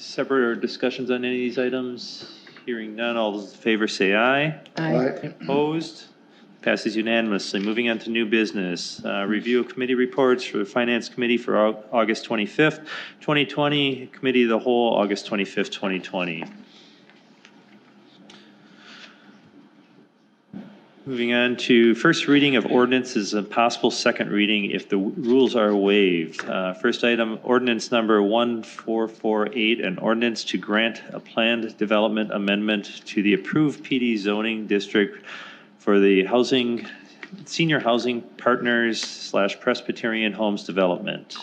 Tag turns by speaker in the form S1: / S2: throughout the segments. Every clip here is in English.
S1: separate or discussions on any of these items? Hearing none, all those in favor say aye.
S2: Aye.
S1: Opposed? Passes unanimously. Moving on to new business. Uh, Review of committee reports for the Finance Committee for Au- August 25th, 2020, Committee of the Whole, August 25th, 2020. Moving on to first reading of ordinances and possible second reading if the w- rules are waived. Uh, First item, ordinance number 1448, an ordinance to grant a planned development amendment to the approved PD zoning district for the housing, senior housing partners slash Presbyterian Homes Development.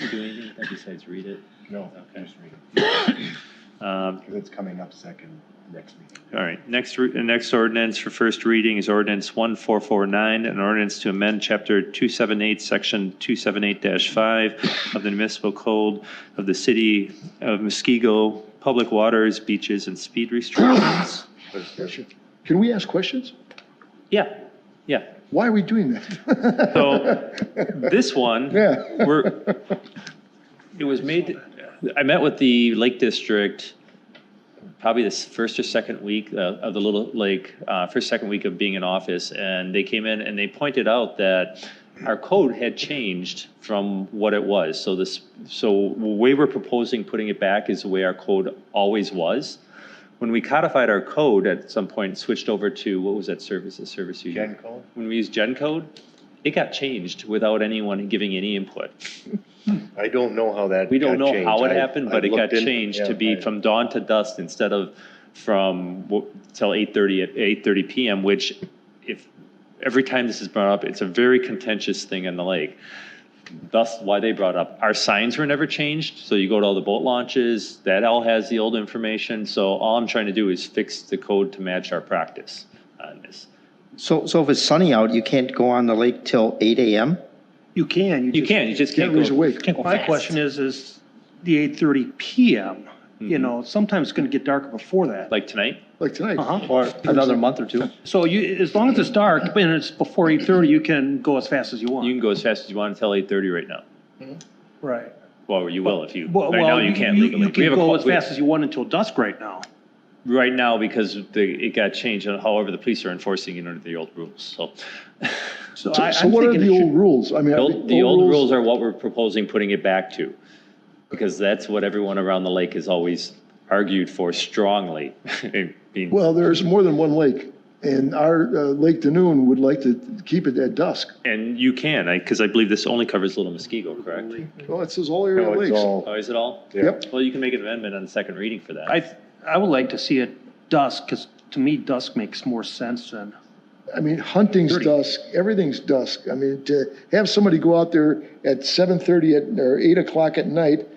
S1: You do anything with that besides read it?
S2: No, just read it,
S1: Um,
S2: because it's coming up second next meeting.
S1: All right, next, re- the next ordinance for first reading is ordinance 1449, an ordinance to amend Chapter 278, Section 278-5 of the municipal code of the city of Muskego, public waters, beaches, and speed restrictions.
S3: Can we ask questions?
S1: Yeah, yeah.
S3: Why are we doing that?
S1: So, This one,
S3: Yeah.
S1: we're, it was made, I met with the Lake District probably this first or second week uh, of the Little Lake, uh, first, second week of being in office. And they came in and they pointed out that our code had changed from what it was. So this, so the way we're proposing putting it back is the way our code always was. When we codified our code at some point, switched over to, what was that service, the service? you-
S2: Gen code?
S1: When we used Gen Code, it got changed without anyone giving any input.
S2: I don't know how that.
S1: We don't
S2: got
S1: know how it
S2: changed. I-
S1: happened, but
S2: I
S1: it got
S2: looked in-
S1: changed
S2: yeah,
S1: to be
S2: I-
S1: from dawn to dusk instead of from wo- till eight thirty at eight thirty PM, which if, every time this is brought up, it's a very contentious thing in the lake. Thus why they brought up, our signs were never changed, so you go to all the boat launches, that all has the old information. So all I'm trying to do is fix the code to match our practice on this.
S4: So, so if it's sunny out, you can't go on the lake till eight AM?
S5: You can.
S1: You
S5: just
S1: can, you just can't
S3: Everybody's
S1: go.
S3: awake.
S5: can't go My question is, is the eight thirty PM, you know, sometimes it's gonna get dark before that.
S1: Like tonight,
S3: Like tonight.
S5: Uh-huh.
S4: Or another month or two?
S5: So you, as long as it's dark and it's before eight thirty, you can go as fast as you
S1: you can
S5: want.
S1: go as fast as you want until eight thirty right now.
S5: Right.
S1: Well, you will if you,
S5: Well,
S1: right now
S5: well,
S1: you
S5: you
S1: can't
S5: you-
S1: legally.
S5: you
S1: We have
S5: can
S1: a
S5: go
S1: call-
S5: as
S1: we-
S5: fast as you want until dusk right now.
S1: Right now, because the, it got changed, and however, the police are enforcing it under the old rules, so.
S5: So
S3: So
S5: I,
S3: so
S5: I'm
S3: what are
S5: thinking
S3: the
S5: it
S3: old
S5: should,
S3: rules? I mean.
S1: The
S3: are
S1: old- the old rules are what we're proposing putting it back to, because that's what everyone around the lake has always argued for strongly. Being-
S3: Well, there's more than one lake, and our uh, Lake Danoon would like to keep it at dusk.
S1: And you can, I, because I believe this only covers Little Muskego, correct?
S3: Well, it says all
S2: No,
S3: area
S2: it's
S3: lakes.
S2: all,
S1: Oh, is it all?
S3: Yep.
S1: Well, you can make an amendment on the second reading for that.
S5: I, I would like to see it dusk, because to me dusk makes more sense than,
S3: I mean, hunting's dusk, everything's dusk. I mean, to have somebody go out there at 7:30 at, or 8 o'clock at night,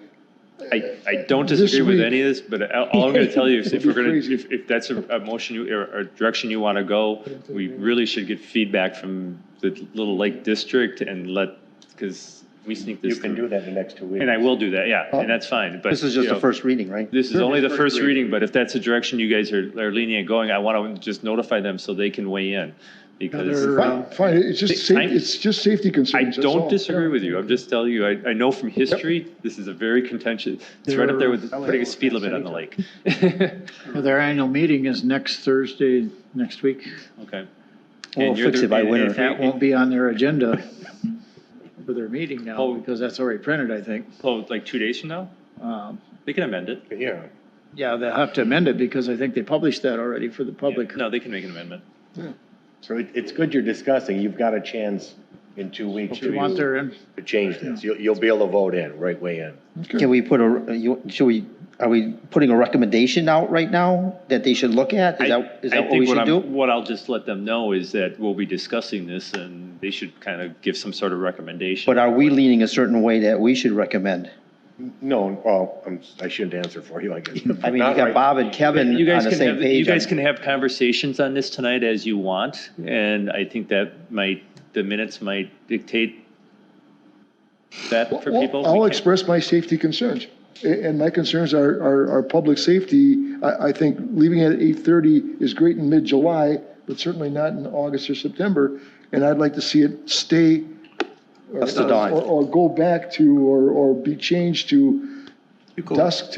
S1: I, I don't
S3: This
S1: disagree with
S3: week.
S1: any of this, but I- all I'm going to tell you is if we're going to,
S3: Crazy.
S1: if, if that's a, a motion you, or, or direction you want to go, we really should get feedback from the Little Lake District and let, because we sneak
S2: you
S1: this
S2: can do
S1: through.
S2: that in the next two weeks.
S1: And I will do that, yeah,
S3: Oh.
S1: and that's fine, but.
S4: This is just
S1: you
S4: the
S1: know,
S4: first reading, right?
S1: This is only the first reading, but if that's the direction you guys are, are lenient going, I want to just notify them so they can weigh in. Because
S5: Another-
S3: fine, fine, it's just, sa-
S1: I'm-
S3: it's just safety
S1: I
S3: concerns. that's
S1: don't
S3: all.
S1: disagree with you, I'm just telling you, I, I know from history, this is a very contentious, it's right up there with
S5: There-
S1: putting a speed limit on the lake.
S6: Well, Their annual meeting is next Thursday, next week.
S1: Okay.
S4: We'll
S1: And you're
S4: fix
S1: the-
S4: it by
S1: and-
S4: winter.
S1: and if
S6: That
S1: you-
S6: won't be on their agenda for their meeting now,
S1: Oh.
S6: because that's already printed, I think.
S1: Oh, like two days from now?
S6: Um,
S1: They can amend it.
S2: Yeah,
S6: Yeah, they'll have to amend it, because I think they published that already for the public.
S1: No, they can make an amendment.
S2: so it, it's good you're discussing, you've got a chance in two weeks
S6: If
S2: to
S6: you want
S2: to
S6: their, in-
S2: change this, you'll, you'll be able to vote in, right way in.
S4: Can we put a, you, should we, are we putting a recommendation out right now that they should look at? Is that, is
S1: I- I
S4: that what
S1: think
S4: we should
S1: I'm-
S4: do?
S1: What I'll just let them know is that we'll be discussing this and they should kind of give some sort of recommendation.
S4: But are we leaning a certain way that we should recommend?
S2: No, well, I'm, I shouldn't answer for you, I guess.
S4: I mean, you got Bob and Kevin
S1: You
S4: on
S1: guys
S4: the
S1: can
S4: same
S1: have, you
S4: page.
S1: guys
S4: on-
S1: can have conversations on this tonight as you want. And I think that might, the minutes might dictate that for
S3: Well,
S1: people.
S3: I'll
S1: We can't-
S3: express my safety concerns, A- and my concerns are, are, are public safety. I, I think leaving it at eight thirty is great in mid-July, but certainly not in August or September, and I'd like to see it stay. uh, or-
S4: Dusk to dawn.
S3: Or, or go back to, or, or be changed to
S5: You go-
S3: dusk till